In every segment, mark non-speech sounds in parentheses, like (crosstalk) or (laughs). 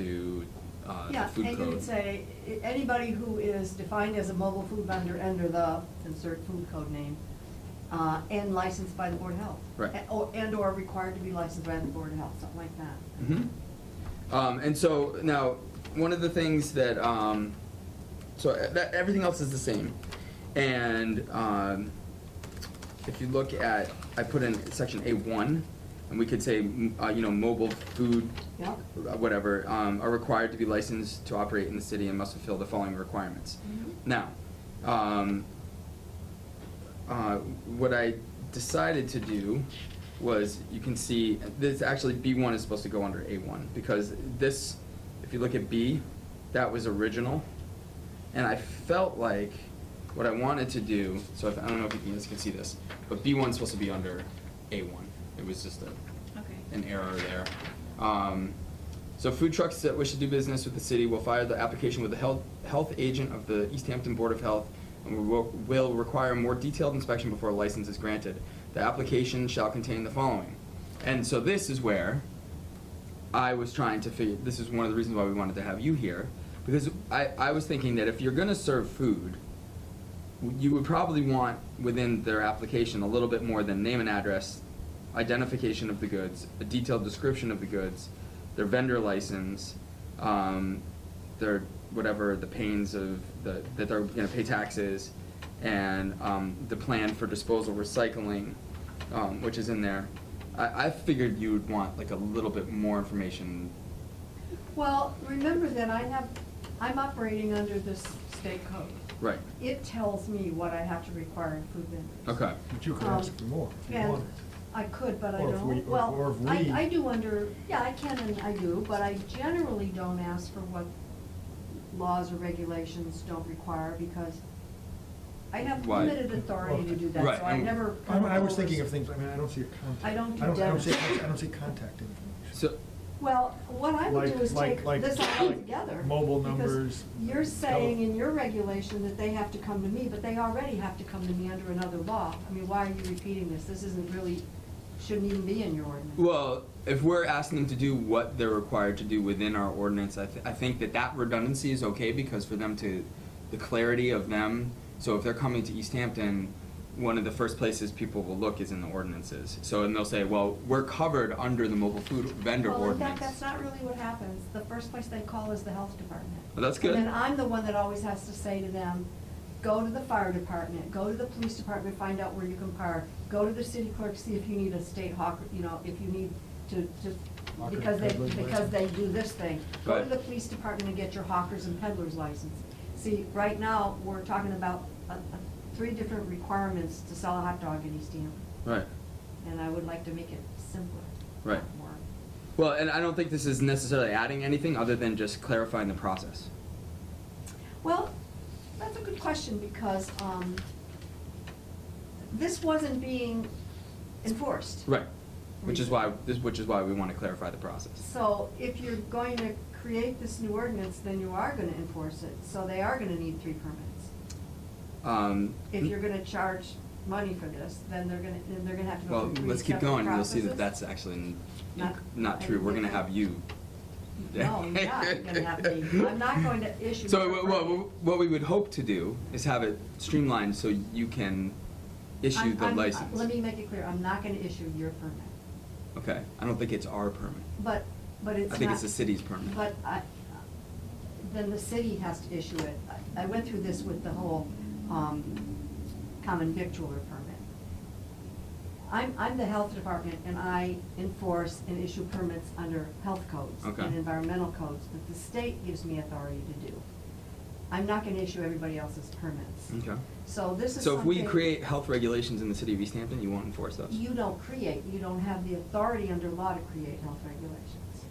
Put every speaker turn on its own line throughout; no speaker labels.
to uh, the
Yeah,
food
and
code.
you could say, i- anybody who is defined as a mobile food vendor under the, insert food code name, uh, and licensed by the Board of Health.
Right.
And- or- And or required to be licensed by the Board of Health, something like that.
Mhm. Um, and so now, one of the things that um, so uh, that everything else is the same, and um, if you look at, I put in section A one, and we could say, m- uh, you know, mobile food,
Yep.
uh, whatever, um, are required to be licensed to operate in the city and must fulfill the following requirements. Now, um, uh, what I decided to do was, you can see, this, actually, B one is supposed to go under A one, because this, if you look at B, that was original. And I felt like what I wanted to do, so if, I don't know if you guys can see this, but B one's supposed to be under A one, it was just a
Okay.
an error there. Um, so food trucks that wish to do business with the city will file the application with the health, health agent of the East Hampton Board of Health and will, will require more detailed inspection before a license is granted. The application shall contain the following. And so this is where I was trying to figure, this is one of the reasons why we wanted to have you here, because I, I was thinking that if you're gonna serve food, you would probably want within their application a little bit more than name and address, identification of the goods, a detailed description of the goods, their vendor license, um, their, whatever, the pains of, the, that they're gonna pay taxes, and, um, the plan for disposal recycling, um, which is in there. I, I figured you would want like a little bit more information.
Well, remember that I have, I'm operating under this state code.
Right.
It tells me what I have to require in food vendors.
Okay.
But you could ask for more if you
Um, And
wanted.
I could, but I
Or if we-
don't.
or- or
Well,
if
I,
we-
I do under, yeah, I can and I do, but I generally don't ask for what laws or regulations don't require because I have
Why?
limited authority to do that,
Right,
so I
and-
never.
I mean, I was
overs-
thinking of things, I mean, I don't see a contact.
I don't do
see-
demos.
I don't see contact information.
So,
Well, what I would
Like-
do is
like-
take
like-
this all
like
together.
mobile
because
numbers,
You're saying
tele-
in your regulation that they have to come to me, but they already have to come to me under another law. I mean, why are you repeating this? This isn't really, shouldn't even be in your ordinance.
well, if we're asking them to do what they're required to do within our ordinance, I, th- I think that that redundancy is okay because for them to, the clarity of them, so if they're coming to East Hampton, one of the first places people will look is in the ordinances. So, and they'll say, well, we're covered under the mobile food vendor
Well, in
ordinance.
fact, that's not really what happens. The first place they call is the health department.
Well, that's good.
And then I'm the one that always has to say to them, go to the fire department, go to the police department, find out where you can park, go to the city clerk, see if you need a state hawk, you know, if you need to, to,
Hawker
because they,
peddler's
because they do this thing. Go to
Right.
the police department and get your hawkers and peddlers license. See, right now, we're talking about, uh, uh, three different requirements to sell a hot dog in East Hampton,
Right.
and I would like to make it simpler. not
Right.
more.
Well, and I don't think this is necessarily adding anything other than just clarifying the process.
Well, that's a good question because um, this wasn't being enforced.
Right. Which is why, this, which is why we want to clarify the process.
So if you're going to create this new ordinance, then you are gonna enforce it, so they are gonna need three permits.
Um,
If you're gonna charge money for this, then they're gonna, then they're gonna have to go
Well,
through three
let's keep
separate
going, and you'll see that
processes.
that's actually n-
Not-
not
I
true, we're
think
gonna
that-
have you.
No, you're not gonna have me. I'm not going to
(laughs)
issue
So,
a
what,
permit.
what, what we would hope to do is have it streamlined so you can issue
I'm-
the
I'm- uh,
license.
Let me make it clear, I'm not gonna issue your permit.
Okay, I don't think it's our permit.
But, but it's
I think
not-
it's the city's permit.
But I, then the city has to issue it. I I went through this with the whole, um, common victualler permit. I'm, I'm the health department and I enforce and issue permits under health codes
Okay.
and environmental codes that the state gives me authority to do. I'm not gonna issue everybody else's permits.
Okay.
So this is
So if we
something-
create health regulations in the city of East Hampton, you won't enforce those?
You don't create, you don't have the authority under law to create health regulations.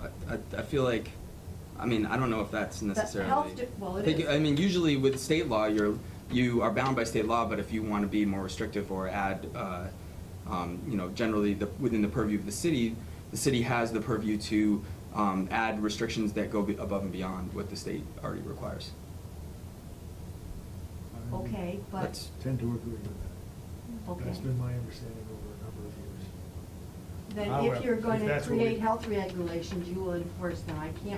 I, I, I feel like, I mean, I don't know if that's
The
necessarily.
health di- well, it
I think-
is.
I mean, usually with state law, you're, you are bound by state law, but if you want to be more restrictive or add, uh, um, you know, generally the, within the purview of the city, the city has the purview to, um, add restrictions that go be- above and beyond what the state already requires.
I
Okay, but,
That's-
Tend to agree with that.
okay.
That's been my understanding over a number of years.
then
Ah, well,
if you're
if
gonna
that's what we-
create health regulations, you will enforce them. I can't